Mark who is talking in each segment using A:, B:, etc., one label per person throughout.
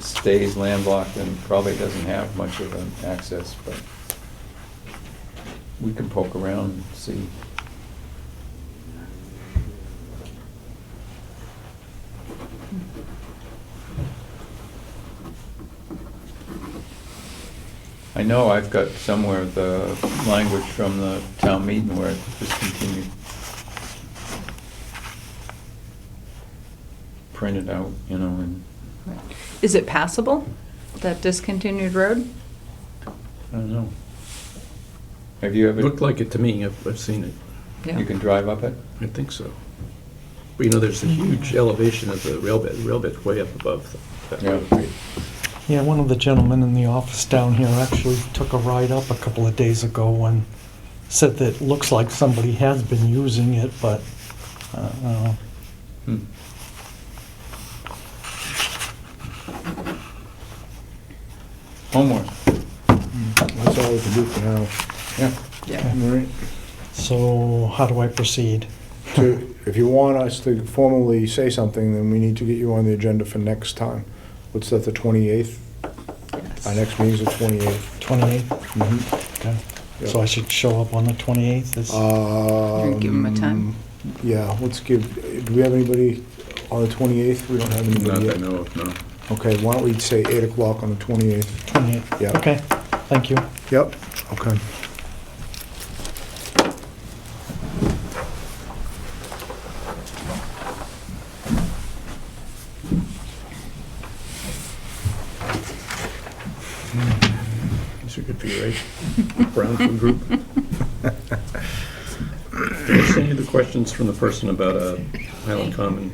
A: stays landlocked and probably doesn't have much of an access, but we can poke around and see. I know I've got somewhere the language from the town meeting where it discontinued. Printed out, you know, and,
B: Is it passable, that discontinued road?
A: I don't know. Have you ever?
C: Looked like it to me, I've, I've seen it,
B: Yeah.
A: You can drive up it?
C: I think so. But you know, there's a huge elevation of the rail bed, rail bed's way up above that
A: Yeah.
C: road grade.
D: Yeah, one of the gentlemen in the office down here actually took a ride up a couple of days ago and said that it looks like somebody has been using it, but, uh, I don't know.
A: Hmm. Homework,
E: That's all we can do for now.
A: yeah.
B: Yeah.
E: All right.
D: So how do I proceed?
E: To- If you want us to formally say something, then we need to get you on the agenda for next time. What's that, the 28th? Our next meeting's the 28th.
D: 28th?
E: Mhm.
D: Okay. So I
E: Yeah.
D: should show up on the 28th? Is-
E: Um,
B: Give 'em a time.
E: Yeah, let's give, do we have anybody on the 28th? We don't have
C: Not
E: anybody
C: that I
E: yet.
C: know of, no.
E: Okay, why don't we say 8 o'clock on the 28th?
D: 28th?
E: Yeah.
D: Okay, thank you.
E: Yep, okay.
C: These are good for your age. Brown food group. Did I send you the questions from the person about uh, Highland Common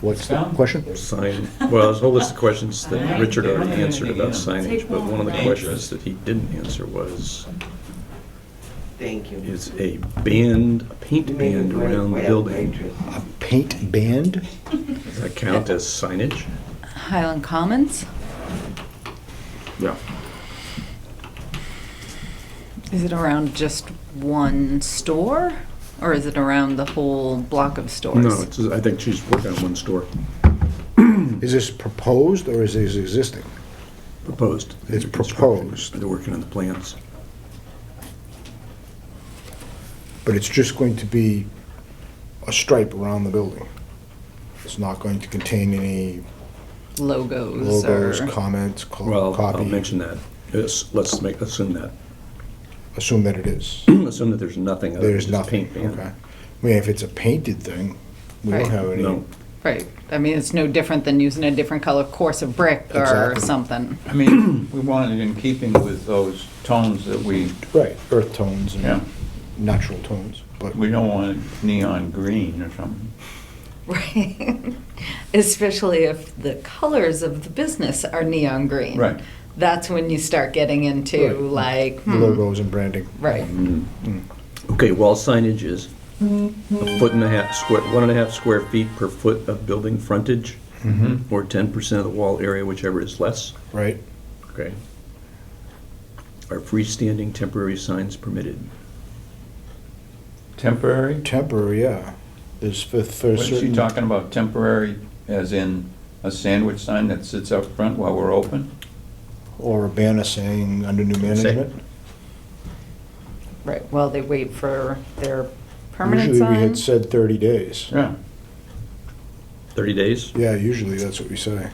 E: What's the question?
C: sign? Well, there's a whole list of questions that Richard already answered about signage, but one of the questions that he didn't answer was,
F: Thank you.
C: is a band, a paint band around the building,
E: A paint band?
C: does that count as signage?
B: Highland Commons?
C: Yeah.
B: Is it around just one store? Or is it around the whole block of stores?
C: No, it's, I think she's working on one store
E: Is this proposed or is this existing?
C: proposed.
E: It's proposed.
C: They're working on the plans.
E: But it's just going to be a stripe around the building. It's not going to contain any
B: Logos or?
E: logos, comments, co-
C: Well, I'll
E: Oh, copy.
C: mention that. Yes, Let's make, assume that.
E: Assume that it is.
C: Assume that there's nothing other than
E: There's
C: just
E: nothing,
C: paint
E: okay.
C: band.
E: I mean, if it's a painted thing, we don't
B: Right.
E: have any.
C: No,
B: Right, I mean, it's no different than using a different color course of brick or
E: Exactly.
B: something.
A: I mean, we wanted it in keeping with those tones that we,
E: Right, earth tones
A: Yeah.
E: and natural tones, but
A: we don't want neon green or something.
B: Right. Especially if the colors of the business are neon green.
A: Right.
B: That's when you start getting into like, hmm,
E: logos and branding. Hmm.
B: right.
C: Mm-hmm. okay, wall signage is a foot and a half square, one and a half square feet per foot of building frontage, or ten percent of the wall area, whichever is less,
E: Right,
C: okay? Are freestanding temporary signs permitted?
A: Temporary?
E: temporary, yeah. There's for, for
A: What is she
E: certain.
A: talking about, temporary as in a sandwich sign that sits up front while we're open?
E: Or a banner saying under new management.
B: Right, while they wait for their permanent
E: Usually we had
B: sign.
E: said thirty days.
A: Yeah.
C: Thirty days?
E: Yeah, usually that's what we say.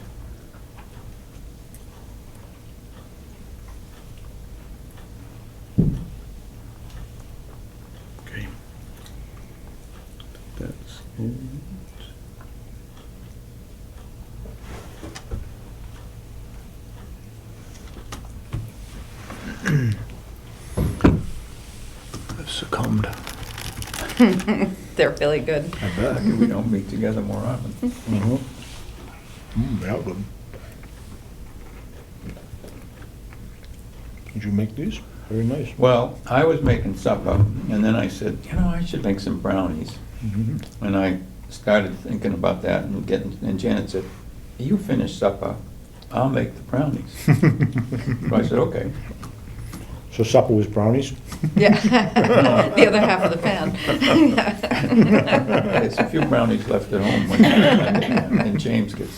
C: Okay. That's it.
E: I've Succumbed.
B: They're really good.
E: I bet.
A: We don't meet together more often.
E: Mm-hmm. Mm, that would. Did you make these? Very nice.
A: Well, I was making supper, and then I said, you know, I should make some brownies.
E: Mhm.
A: And I started thinking about that and getting, and Janet said, you finish supper, I'll make the brownies. So I said, okay.
E: So supper was brownies?
B: Yeah. The other half of the pan.
A: There's a few brownies left at home when, and James gets